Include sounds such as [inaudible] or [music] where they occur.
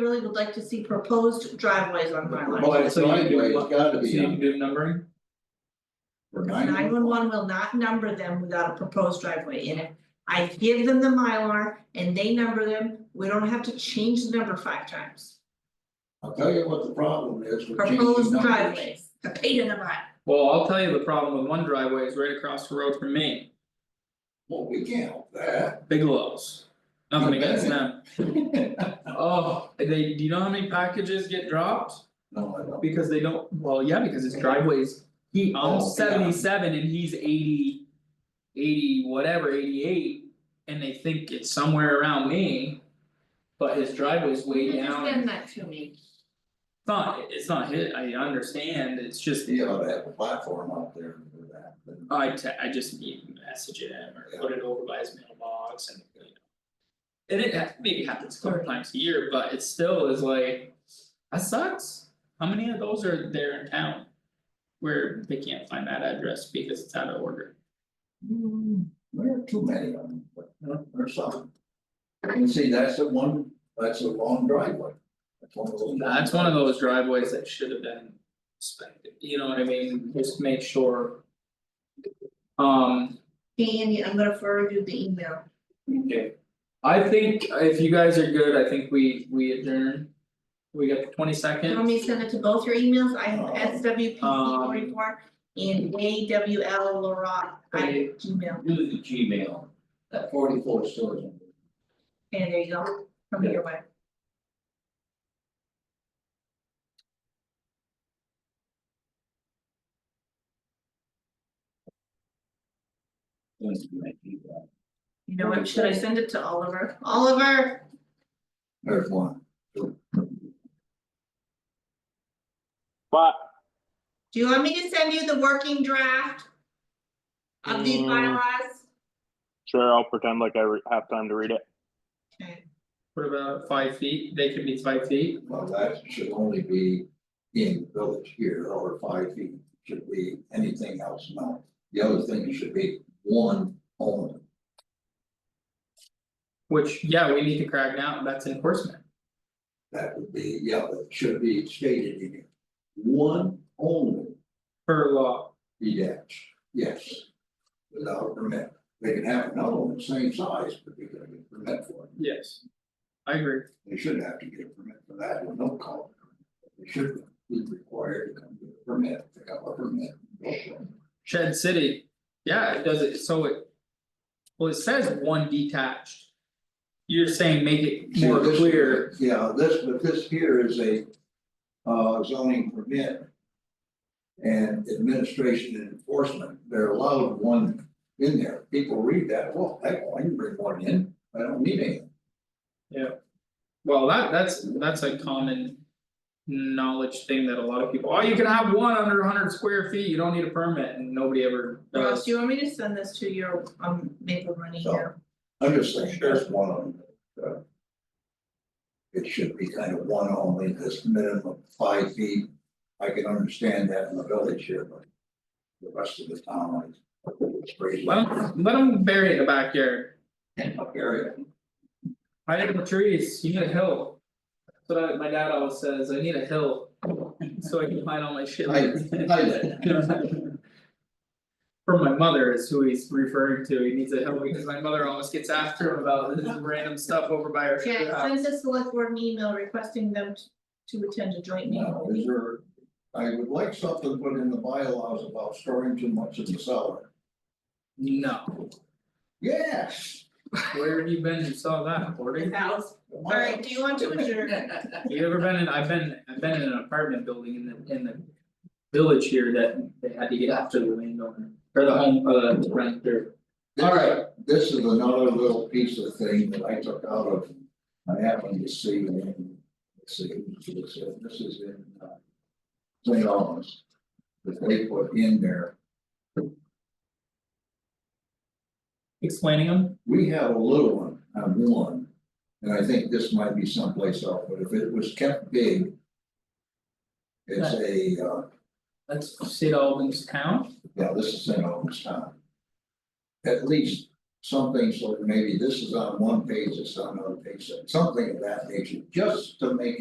really would like to see proposed driveways on my line. Well, it's So you can do anyway, it's what- gotta So be, you um, can do numbering, for Nine nine, one one will not number them without a proposed driveway in it. I give them the Mylar and they number them, we don't have to change the number five times. I'll tell you what the problem is with changing numbers. Proposed driveways, a pain in the butt. well, I'll tell you the problem with one driveway is right across the road from me, Well, we can't help that. [laughs] Bigelow's. Nothing against them, No, oh, they, do you know how many packages get dropped? I don't. Because they don't, well, yeah, because his driveway's, he Oh, yeah. owns seventy seven and he's eighty. Eighty whatever, eighty eight, and they think it's somewhere around me. But his driveway's way You down, Understand it's that to me. not, it's not hit, I understand, it's just. You ought to have a platform out there for that. but- Oh, I te- I just need to message him or put it over by his mailbox and you know. And it ha- maybe happens a couple times a year, but it still is like, that sucks, how many of those are there in town? Where they can't find that address because it's out of order, Hmm, There are too many of them, but there's some. And see, that's the one, that's a long driveway. That's one of those. that's one of those driveways that should have been inspected, you know what I mean, just make sure. Um. Danny, I'm gonna forward you the email. Okay. I think if you guys are good, I think we we adjourn. We got the twenty You second. want me to send it to both your emails? I have Um, S W P C um, report and A W L Laurent I Hey. Gmail. Do the Gmail, that forty four storage. And there you go, come your way. You know what, should I send it to Oliver? Oliver, There's one. What? do you want me to send you the working draft? Of these Mm. bylaws? Sure, I'll pretend like I re- have time to read it. Okay, What about five feet? They could be five feet. Well, that should only be in the village here or five feet, should be anything else, no. The other thing should be one owner. Which, yeah, we need to crack down, that's enforcement. That would be, yeah, that should be stated in here. One owner Per law, detached, yes. Without a permit, they can have another one the same size, but they're gonna get a permit for it. yes. I agree. They should have to get a permit for that, or no call. They should be required to come get a permit, pick up a permit. Shed City, yeah, it does it, so it. Well, it says one detached. You're saying make it See, more this- clear, Yeah, this, but this here is a uh zoning permit. And administration and enforcement, they're allowed one in there, people read that, well, heck, I can bring one in, I don't need any. well, that that's that's a common. Knowledge thing that a lot of people, oh, you can have one under hundred square feet, you don't need a permit, and nobody ever Ross, does. do you want me to send this to your um Maple Running So- here? I'm just saying, that's one of them. uh, It should be kind of one only, this minimum of five feet, I can understand that in the village here, but. The rest of the town, like, it's crazy. Let them, let them bury it in the backyard, Up area, hide it in the trees, you need a hill. That's what I- my dad always says, I need a hill, so I can hide all my shit. Hide- hide it. [laughs] From my mother is who he's referring to, he needs a hill because my mother always gets after him about this random stuff over by her. Okay, I house. sent the select board an email requesting them t- to attend a joint now, is meeting. there, I would like something put in the bylaws about storing too much in the cellar. No, Yes. where have you been, you saw that, Cory? House. Alright, do you want to adjourn? You ever been in, I've been, I've been in an apartment building in the, in the village here that they had to get after the landowner, or the home, uh, renter. This- Alright. This is another little piece of thing that I took out of, I happened to see in, let's see, this is- this is in, uh. St. Albans, that they put in there, Explaining them, we have a little one, on one. And I think this might be someplace else, but if it was kept big. It's a, uh, that's Sid Albans town, yeah, this is St. Albans town. At least something, so maybe this is on one page, this on another page, something of that nature, just to make it.